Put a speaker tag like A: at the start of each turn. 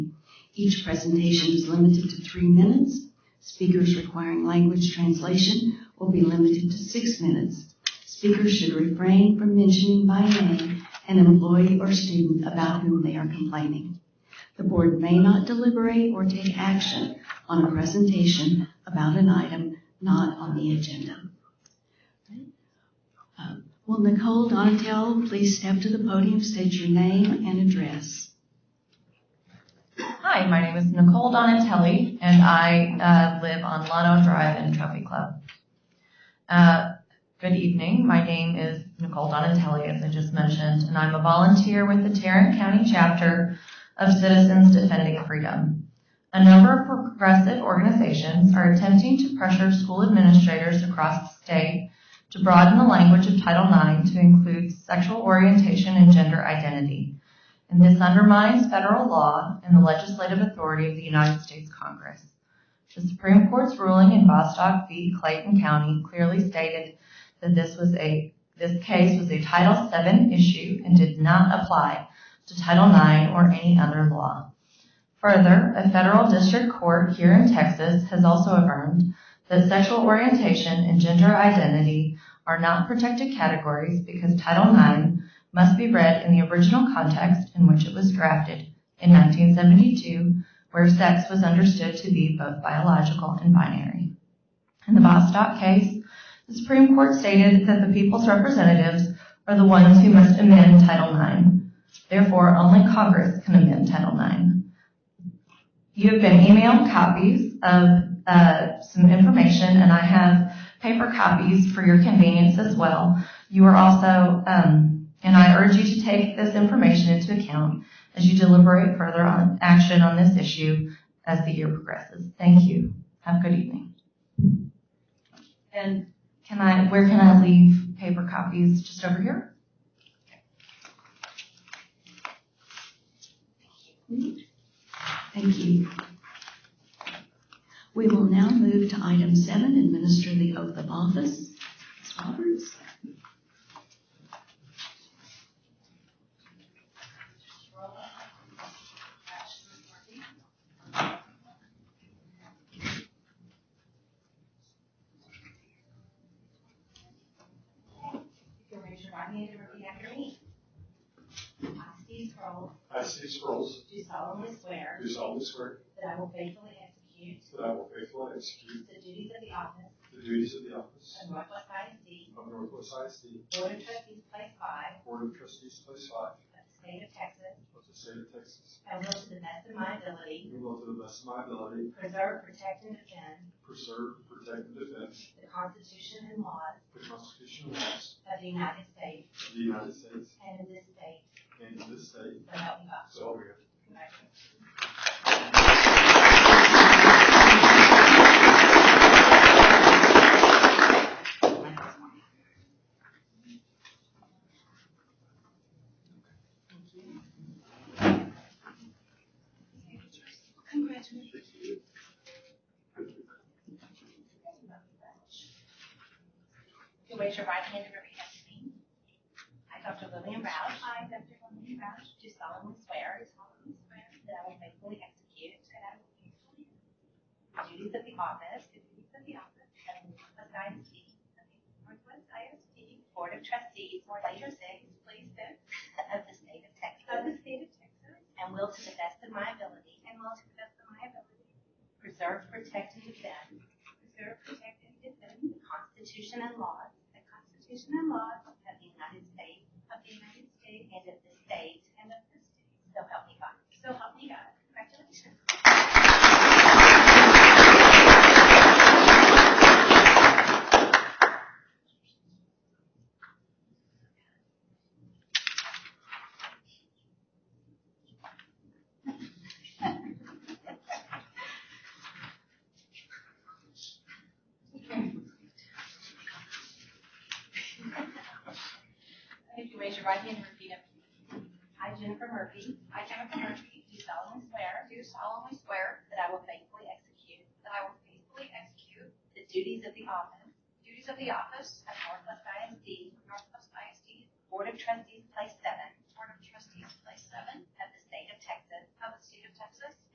A: Each presentation is limited to three minutes. Speakers requiring language translation will be limited to six minutes. Speakers should refrain from mentioning by name an employee or student about whom they are complaining. The board may not deliberate or take action on a presentation about an item not on the agenda. Uh, Will Nicole Donatello please step to the podium, state your name and address?
B: Hi, my name is Nicole Donatelli, and I uh, live on Lano Drive in Trophy Club. Uh, good evening. My name is Nicole Donatelli, as I just mentioned, and I'm a volunteer with the Tarrant County chapter of Citizens Defending Freedom. A number of progressive organizations are attempting to pressure school administrators across the state to broaden the language of Title IX to include sexual orientation and gender identity and this undermines federal law and the legislative authority of the United States Congress. The Supreme Court's ruling in Bostock v. Clayton County clearly stated that this was a this case was a Title VII issue and did not apply to Title IX or any other law. Further, a federal district court here in Texas has also affirmed that sexual orientation and gender identity are not protected categories because Title IX must be read in the original context in which it was drafted in 1972, where sex was understood to be both biological and binary. In the Bostock case, the Supreme Court stated that the people's representatives are the ones who must amend Title IX. Therefore, only Congress can amend Title IX. You have been emailed copies of uh, some information, and I have paper copies for your convenience as well. You are also um, and I urge you to take this information into account as you deliberate further on action on this issue as the year progresses. Thank you. Have a good evening. And can I, where can I leave paper copies? Just over here?
A: Thank you. We will now move to item seven, administer the oath of office. Ms. Roberts?
C: If you'll raise your right hand and repeat after me. I, Steve Scroll,
D: I, Steve Scrolls,
C: do solemnly swear
D: do solemnly swear
C: that I will faithfully execute
D: that I will faithfully execute
C: the duties of the office
D: the duties of the office
C: of Northwest ISD
D: of Northwest ISD
C: Board of Trustees Place Five
D: Board of Trustees, Place Five
C: of the State of Texas
D: of the State of Texas,
C: and will to the best of my ability
D: and will to the best of my ability
C: preserve, protect, and defend
D: preserve, protect, and defend
C: the Constitution and laws
D: the Constitution and laws
C: of the United States
D: of the United States
C: and of this state,
D: and of this state.
C: so help me God.
D: So help me God.
C: Congratulations. If you raise your right hand and repeat after me. I, Dr. Lillian Roush. I, Dr. Lillian Roush. Do solemnly swear. Do solemnly swear. That I will faithfully execute. That I will faithfully The duties of the office. The duties of the office. Of Northwest ISD. Northwest ISD. Board of Trustees. Board of Trustees. Place six. Of the state of Texas. Of the state of Texas. And will to the best of my ability. And will to the best of my ability. Preserve, protect, and defend. Preserve, protect, and defend. The Constitution and laws. The Constitution and laws. Of the United States. Of the United States. And of this state. And of this state. So help me God. So help me God. Congratulations. If you raise your right hand and repeat after me. I, Jennifer Murphy. I, Jennifer Murphy. Do solemnly swear. Do solemnly swear. That I will faithfully execute. That I will faithfully execute. The duties of the office. Duties of the office. At Northwest ISD. Northwest ISD. Board of Trustees, Place Seven. Board of Trustees, Place Seven.